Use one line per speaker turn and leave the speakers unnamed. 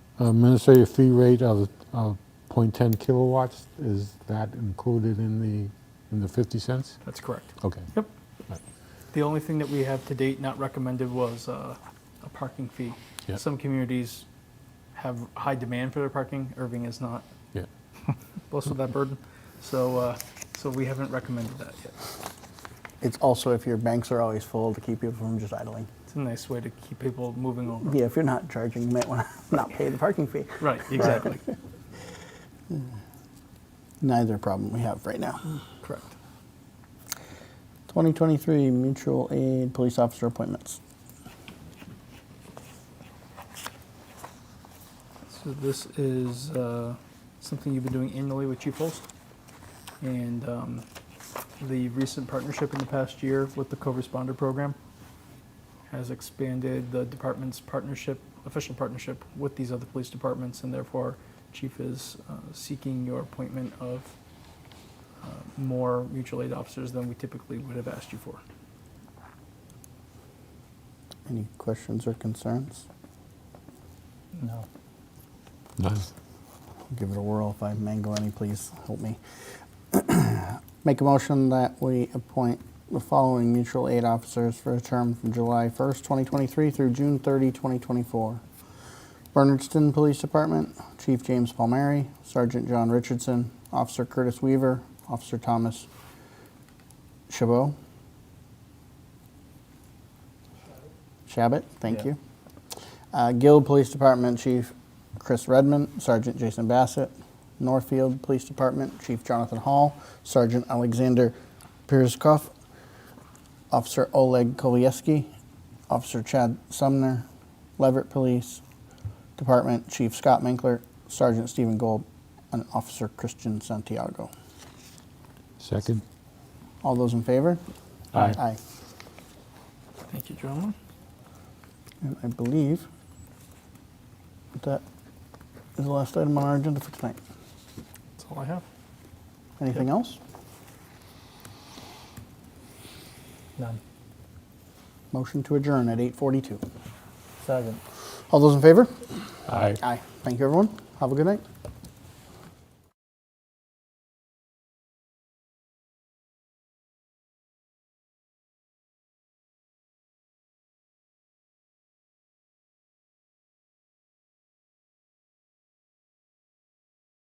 administrative Uh, fee rate of, of 0.10 kilowatts, is that included in the, in the 50 cents?
That's correct.
Okay.
Yep. The only thing that we have to date not recommended was uh, a parking fee.
Yeah.
Some communities have high demand for their parking. Irving is not
Yeah,
blessed with that burden. So, uh, so we haven't recommended that yet.
It's also if your banks are always full to keep people from just idling.
It's a nice way to keep people moving over.
Yeah, if you're not charging, you might want to not pay the parking fee.
Right, exactly.
Neither problem we have right now.
Correct.
2023 mutual aid police officer appointments.
So this is uh, something you've been doing annually with Chief Holst. And um, the recent partnership in the past year with the co-responder program has expanded the department's partnership, official partnership with these other police departments, and therefore Chief is uh, seeking your appointment of uh, more mutual aid officers than we typically would have asked you for.
Any questions or concerns?
No.
nice.
I'll give it a whirl if I mangle any, please help me. Make a motion that we appoint the following mutual aid officers for a term from July 1st, 2023 through June 30, 2024. Bernardston Police Department, Chief James Palmieri, Sergeant John Richardson, Officer Curtis Weaver, Officer Thomas Chabot. Shabbat, thank
Yeah.
you. Uh, Guild Police Department Chief Chris Redmond, Sergeant Jason Bassett, Northfield Police Department Chief Jonathan Hall, Sergeant Alexander Pierskoff, Officer Oleg Kolieski, Officer Chad Sumner, Leverett Police Department Chief Scott Minkler, Sergeant Stephen Gold, and Officer Christian Santiago.
Second?
All those in favor?
Aye.
Aye.
Thank you, gentlemen.
And I believe that is the last item on our agenda for tonight.
That's all I have.
Anything else?
None.
Motion to adjourn at 8:42.
Second.
All those in favor?
Aye.
Aye. Thank you, everyone. Have a good night.